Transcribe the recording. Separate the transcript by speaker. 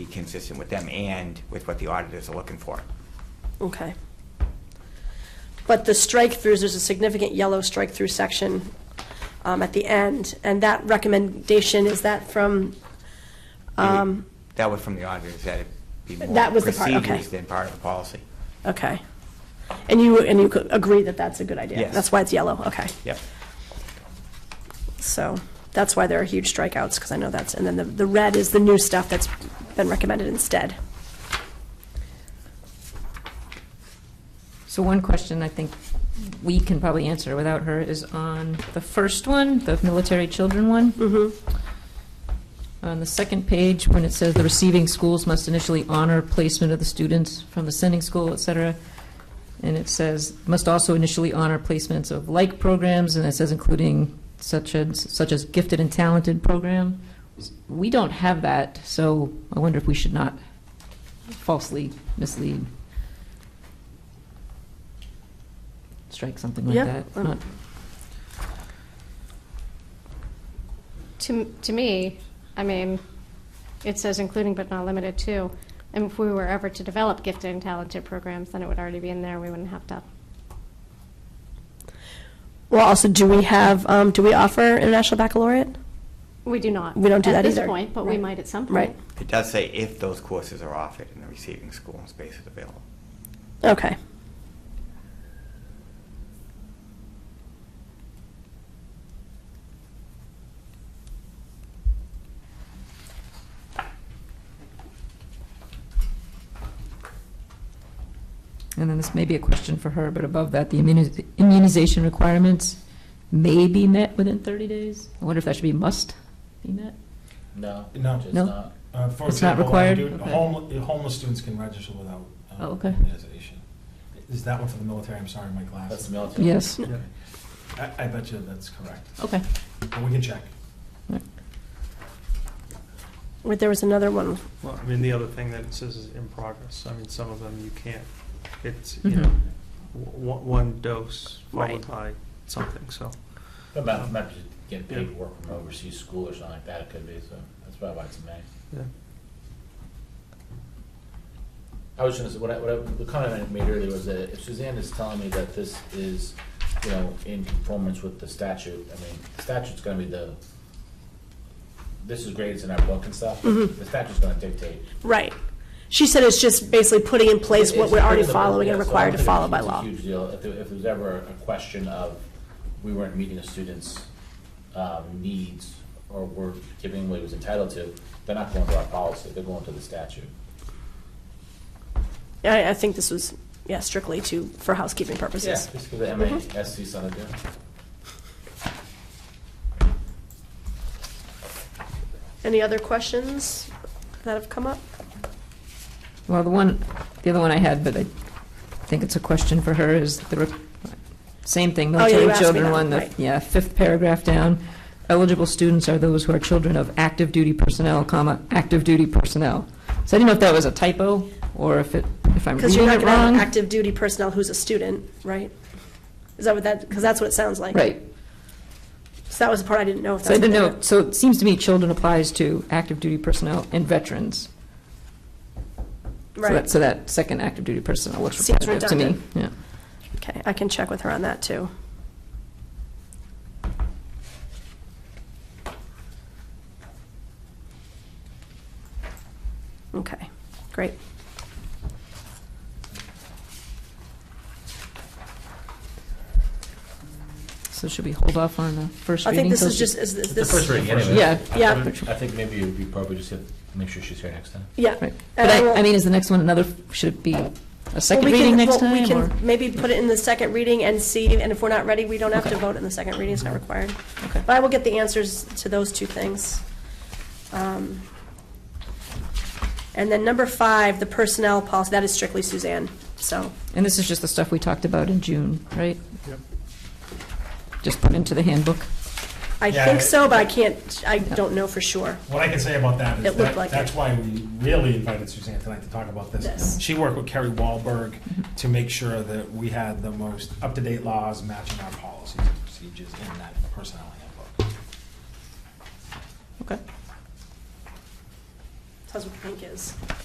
Speaker 1: be consistent with them and with what the auditors are looking for.
Speaker 2: Okay. But the strike-throughs, there's a significant yellow strike-through section um, at the end, and that recommendation, is that from, um,
Speaker 1: That was from the auditors, that'd be more
Speaker 2: That was the part, okay.
Speaker 1: procedures than part of the policy.
Speaker 2: okay. And you, and you could agree that that's a good idea?
Speaker 1: Yes.
Speaker 2: That's why it's yellow, okay.
Speaker 1: Yep.
Speaker 2: So that's why there are huge strikeouts, because I know that's, and then the, the red is the new stuff that's been recommended instead.
Speaker 3: So one question I think we can probably answer without her is on the first one, the military children one.
Speaker 2: Mm-hmm.
Speaker 3: On the second page, when it says the receiving schools must initially honor placement of the students from the sending school, et cetera, and it says must also initially honor placements of like programs, and it says including such as, such as gifted and talented program. We don't have that, so I wonder if we should not falsely mislead. Strike something like
Speaker 2: Yeah,
Speaker 3: that.
Speaker 2: um,
Speaker 3: Not-
Speaker 4: To, to me, I mean, it says including but not limited to. And if we were ever to develop gifted and talented programs, then it would already be in there. We wouldn't have to.
Speaker 2: Well, also, do we have, um, do we offer International Baccalaureate?
Speaker 4: We do not.
Speaker 2: We don't do that
Speaker 4: At
Speaker 2: either.
Speaker 4: this point, but we
Speaker 2: Right.
Speaker 4: might at some
Speaker 2: Right.
Speaker 4: point.
Speaker 1: It does say if those courses are offered in the receiving school and space is available.
Speaker 2: Okay.
Speaker 3: And then this may be a question for her, but above that, the immuni- immunization requirements may be met within 30 days? I wonder if that should be must be met?
Speaker 5: No.
Speaker 6: No.
Speaker 5: Just
Speaker 3: No?
Speaker 5: not.
Speaker 6: Uh, for
Speaker 3: It's not
Speaker 6: example, when you
Speaker 3: required?
Speaker 6: do-
Speaker 3: Okay.
Speaker 6: homel- Homeless students can register without
Speaker 3: Oh,
Speaker 6: um,
Speaker 3: okay.
Speaker 6: immunization. Is that one for the military? I'm sorry, my
Speaker 5: That's
Speaker 6: glasses.
Speaker 5: the military.
Speaker 3: Yes,
Speaker 6: Okay. I I bet you that's correct.
Speaker 3: okay.
Speaker 6: But we can check.
Speaker 2: Wait, there was another one.
Speaker 7: Well, I mean, the other thing that it says is in progress. I mean, some of them you can't, it's, you
Speaker 3: Mhm.
Speaker 7: know, w- one dose
Speaker 3: Right.
Speaker 7: followed by something, so.
Speaker 5: But not, not just getting paid to work from overseas school or something like that, it could be, so that's probably why it's a May.
Speaker 7: Yeah.
Speaker 5: I was gonna say, what I, what I, the comment I made earlier was that if Suzanne is telling me that this is, you know, in conformance with the statute, I mean, the statute's gonna be the, this is great, it's in our book and stuff,
Speaker 3: Mm-hmm.
Speaker 5: the statute's gonna dictate.
Speaker 2: Right. She said it's just basically putting in place what
Speaker 5: It's
Speaker 2: we're already
Speaker 5: part of the book,
Speaker 2: following and
Speaker 5: yeah, so I
Speaker 2: required to
Speaker 5: don't think
Speaker 2: follow
Speaker 5: it's
Speaker 2: by
Speaker 5: a
Speaker 2: law.
Speaker 5: Huge deal, if there, if there's ever a question of, we weren't meeting the students' um, needs, or we're giving what he was entitled to, they're not going to our policy, they're going to the statute.
Speaker 2: I, I think this was, yeah, strictly to, for housekeeping
Speaker 5: Yeah,
Speaker 2: purposes.
Speaker 5: just give the MASC
Speaker 2: Mm-hmm.
Speaker 5: something to do.
Speaker 2: Any other questions that have come up?
Speaker 3: Well, the one, the other one I had, but I think it's a question for her, is the, re- same thing,
Speaker 2: Oh, yeah, you
Speaker 3: military
Speaker 2: asked me
Speaker 3: children
Speaker 2: that,
Speaker 3: one, the,
Speaker 2: right.
Speaker 3: yeah, fifth paragraph down. Eligible students are those who are children of active duty personnel, comma, active duty personnel. So I didn't know if that was a typo, or if it, if I'm
Speaker 2: Because
Speaker 3: reading
Speaker 2: you're not
Speaker 3: it wrong.
Speaker 2: going to have active duty personnel who's a student, right? Is that what that, because that's what it sounds like.
Speaker 3: Right,
Speaker 2: So that was the part I didn't know if
Speaker 3: So I
Speaker 2: that's.
Speaker 3: didn't know, so it seems to me children applies to active duty personnel and veterans. So that-
Speaker 2: Right,
Speaker 3: So that second active duty personnel looks
Speaker 2: Seems
Speaker 3: repetitive to me. Yeah.
Speaker 2: okay, I can check with her on that, too. Okay, great.
Speaker 3: So should we hold off on the first
Speaker 2: I
Speaker 3: reading?
Speaker 2: think this
Speaker 3: till
Speaker 2: is
Speaker 3: she-
Speaker 2: just, is this.
Speaker 5: It's the first reading anyway.
Speaker 3: Yeah,
Speaker 5: I- I
Speaker 2: yeah.
Speaker 5: would- I think maybe it would be appropriate just to make sure she's here next time.
Speaker 2: Yeah.
Speaker 3: Right.
Speaker 2: And
Speaker 3: But
Speaker 2: I will-
Speaker 3: I, I mean, is the next one another, should it be a second
Speaker 2: Well, we
Speaker 3: reading
Speaker 2: can-
Speaker 3: next
Speaker 2: well,
Speaker 3: time?
Speaker 2: We
Speaker 3: or-
Speaker 2: can maybe put it in the second reading and see, and if we're not ready, we don't have to
Speaker 3: Okay.
Speaker 2: vote in the second reading, it's not required.
Speaker 3: Okay.
Speaker 2: But I will get the answers to those two things. Um, And then number five, the personnel policy, that is strictly Suzanne, so,
Speaker 3: And this is just the stuff we talked about in June, right?
Speaker 7: Yep.
Speaker 3: Just put into the handbook.
Speaker 2: I
Speaker 6: Yeah,
Speaker 2: think
Speaker 6: I-
Speaker 2: so, but I can't, I don't know for sure.
Speaker 6: What I can say about that
Speaker 2: It
Speaker 6: is
Speaker 2: looked
Speaker 6: that,
Speaker 2: like
Speaker 6: that's
Speaker 2: it.
Speaker 6: why we really invited Suzanne tonight to talk about
Speaker 2: Yes.
Speaker 6: this. She worked with Kerry Wahlberg
Speaker 3: Mm-hmm.
Speaker 6: to make sure that we had the most up-to-date laws matching our policies and procedures in that personnel handbook.
Speaker 3: Okay.
Speaker 2: Tells what pink is.